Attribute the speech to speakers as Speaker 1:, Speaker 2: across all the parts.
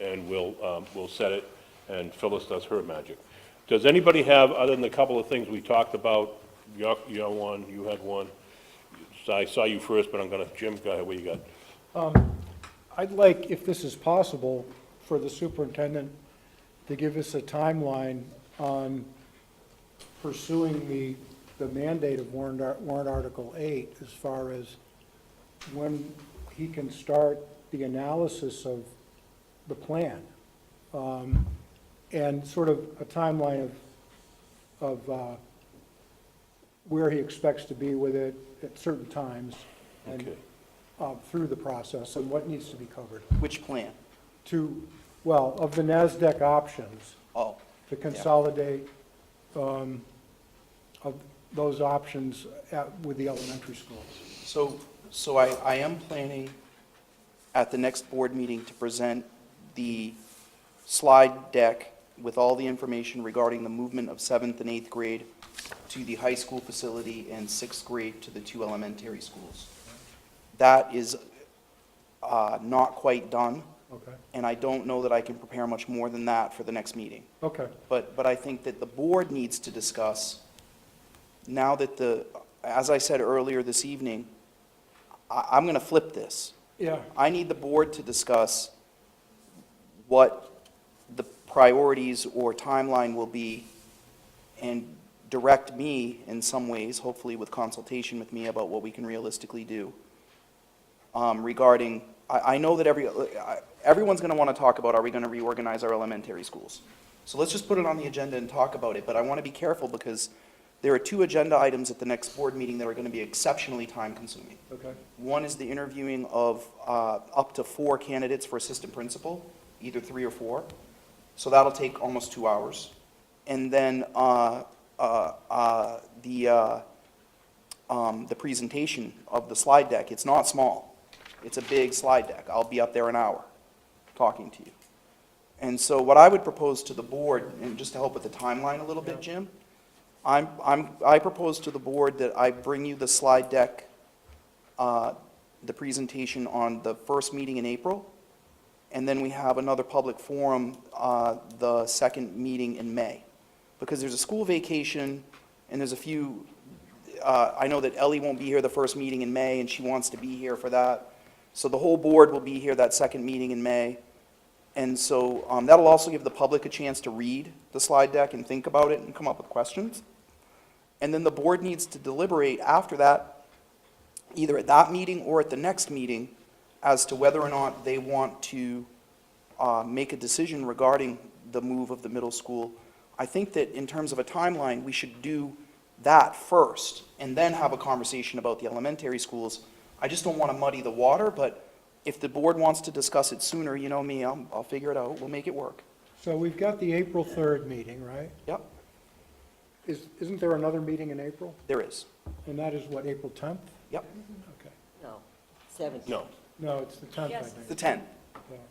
Speaker 1: and we'll, um, we'll set it, and Phyllis does her magic. Does anybody have, other than the couple of things we talked about, your, your one, you had one, so I saw you first, but I'm gonna, Jim, go ahead, what you got?
Speaker 2: I'd like, if this is possible, for the superintendent to give us a timeline on pursuing the, the mandate of warrant, ar- warrant Article 8 as far as when he can start the analysis of the plan. Um, And sort of a timeline of, of uh, where he expects to be with it at certain times. and
Speaker 1: Okay.
Speaker 2: uh, through the process and what needs to be covered.
Speaker 3: Which plan?
Speaker 2: To, well, of the NASDAQ options,
Speaker 3: Oh,
Speaker 2: to consolidate um, of those options at- with the elementary schools.
Speaker 3: so, so I, I am planning at the next board meeting to present the slide deck with all the information regarding the movement of seventh and eighth grade to the high school facility and sixth grade to the two elementary schools. That is uh, not quite done,
Speaker 2: Okay,
Speaker 3: and I don't know that I can prepare much more than that for the next meeting.
Speaker 2: okay,
Speaker 3: But, but I think that the board needs to discuss, now that the, as I said earlier this evening, I, I'm going to flip this.
Speaker 2: yeah,
Speaker 3: I need the board to discuss what the priorities or timeline will be and direct me in some ways, hopefully with consultation with me about what we can realistically do um, regarding, I, I know that every, I- everyone's going to want to talk about, are we going to reorganize our elementary schools? So let's just put it on the agenda and talk about it, but I want to be careful because there are two agenda items at the next board meeting that are going to be exceptionally time-consuming.
Speaker 2: okay,
Speaker 3: One is the interviewing of uh, up to four candidates for assistant principal, either three or four. So that'll take almost two hours. And then uh, uh, uh, the, uh, um, the presentation of the slide deck, it's not small. It's a big slide deck. I'll be up there an hour talking to you. And so what I would propose to the board, and just to help with the timeline a little bit, Jim, I'm, I'm, I propose to the board that I bring you the slide deck uh, the presentation on the first meeting in April, and then we have another public forum, uh, the second meeting in May. Because there's a school vacation, and there's a few, uh, I know that Ellie won't be here the first meeting in May, and she wants to be here for that. So the whole board will be here that second meeting in May. And so um, that'll also give the public a chance to read the slide deck and think about it and come up with questions. And then the board needs to deliberate after that either at that meeting or at the next meeting as to whether or not they want to uh, make a decision regarding the move of the middle school. I think that in terms of a timeline, we should do that first and then have a conversation about the elementary schools. I just don't want to muddy the water, but if the board wants to discuss it sooner, you know me, I'll, I'll figure it out. We'll make it work.
Speaker 2: so we've got the April 3rd meeting, right?
Speaker 3: Yep,
Speaker 2: Is, isn't there another meeting in April?
Speaker 3: there is.
Speaker 2: And that is what, April 10th?
Speaker 3: Yep,
Speaker 2: Okay,
Speaker 4: No, 17th.
Speaker 1: No.
Speaker 2: no, it's the 10th, I think.
Speaker 3: the 10.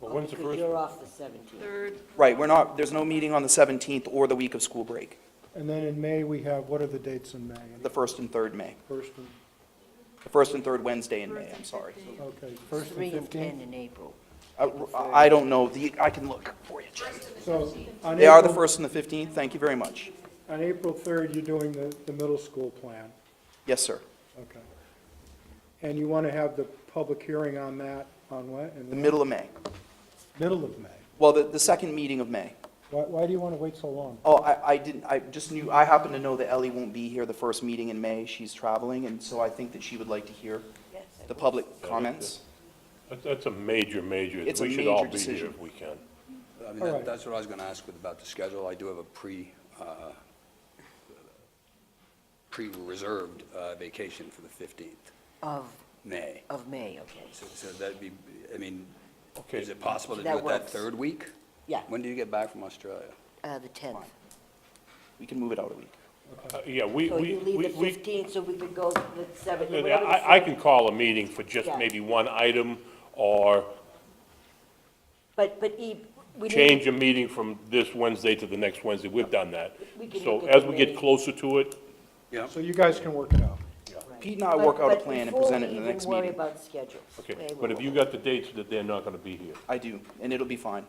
Speaker 1: Well, when's the
Speaker 4: Because
Speaker 1: first?
Speaker 4: You're off the 17th.
Speaker 3: Right, we're not, there's no meeting on the 17th or the week of school break,
Speaker 2: And then in May, we have, what are the dates in May?
Speaker 3: the first and third May.
Speaker 2: First and,
Speaker 3: The first and third Wednesday in May, I'm sorry.
Speaker 2: okay, first
Speaker 4: Three
Speaker 2: and
Speaker 4: and 10
Speaker 2: 15th?
Speaker 4: in April.
Speaker 3: I I don't know, the, I can look for you, Jim.
Speaker 2: So on
Speaker 3: They are the
Speaker 2: April-
Speaker 3: first and the 15th, thank you very much.
Speaker 2: On April 3rd, you're doing the, the middle school plan,
Speaker 3: Yes, sir.
Speaker 2: okay. And you want to have the public hearing on that, on what? In
Speaker 3: The middle of May.
Speaker 2: Middle of May.
Speaker 3: Well, the, the second meeting of May.
Speaker 2: Why, why do you want to wait so long?
Speaker 3: Oh, I, I didn't, I just knew, I happen to know that Ellie won't be here the first meeting in May. She's traveling, and so I think that she would like to hear
Speaker 4: Yes, I
Speaker 3: the public comments.
Speaker 1: That's- That's a major, major, we
Speaker 3: It's a
Speaker 1: should all
Speaker 3: major
Speaker 1: be here
Speaker 3: decision.
Speaker 1: if we can.
Speaker 5: I mean,
Speaker 2: All
Speaker 5: that-
Speaker 2: right.
Speaker 5: that's what I was going to ask with about the schedule. I do have a pre, uh, pre-reserved uh, vacation for the 15th,
Speaker 4: Of,
Speaker 5: May.
Speaker 4: of May, okay.
Speaker 5: So- So that'd be, I mean,
Speaker 1: Okay.
Speaker 5: is it possible to do
Speaker 4: That
Speaker 5: it that
Speaker 4: works.
Speaker 5: third week?
Speaker 4: Yeah,
Speaker 5: When do you get back from Australia?
Speaker 4: uh, the 10th.
Speaker 3: We can move it out a week.
Speaker 1: Uh, Yeah, we,
Speaker 4: So
Speaker 1: we,
Speaker 4: you leave
Speaker 1: we,
Speaker 4: the
Speaker 1: we
Speaker 4: 15th, so we could go the 7th.
Speaker 1: Yeah, I, I can call a meeting for just
Speaker 4: Yeah.
Speaker 1: maybe one item, or
Speaker 4: But, but E, we need.
Speaker 1: change a meeting from this Wednesday to the next Wednesday, we've done that.
Speaker 4: We can
Speaker 1: So
Speaker 4: look at
Speaker 1: as
Speaker 4: the
Speaker 1: we get
Speaker 4: meeting.
Speaker 1: closer to it,
Speaker 5: Yeah.
Speaker 2: So you guys can work it out.
Speaker 4: right.
Speaker 3: Pete and I
Speaker 4: But-
Speaker 3: work out a
Speaker 4: but
Speaker 3: plan and
Speaker 4: before
Speaker 3: present
Speaker 4: we
Speaker 3: it in the
Speaker 4: even
Speaker 3: next
Speaker 4: worry
Speaker 3: meeting.
Speaker 4: about schedules.
Speaker 1: okay,
Speaker 4: they
Speaker 1: but
Speaker 4: will-
Speaker 1: if you got the dates that they're not gonna be here,
Speaker 3: I do, and it'll be fine.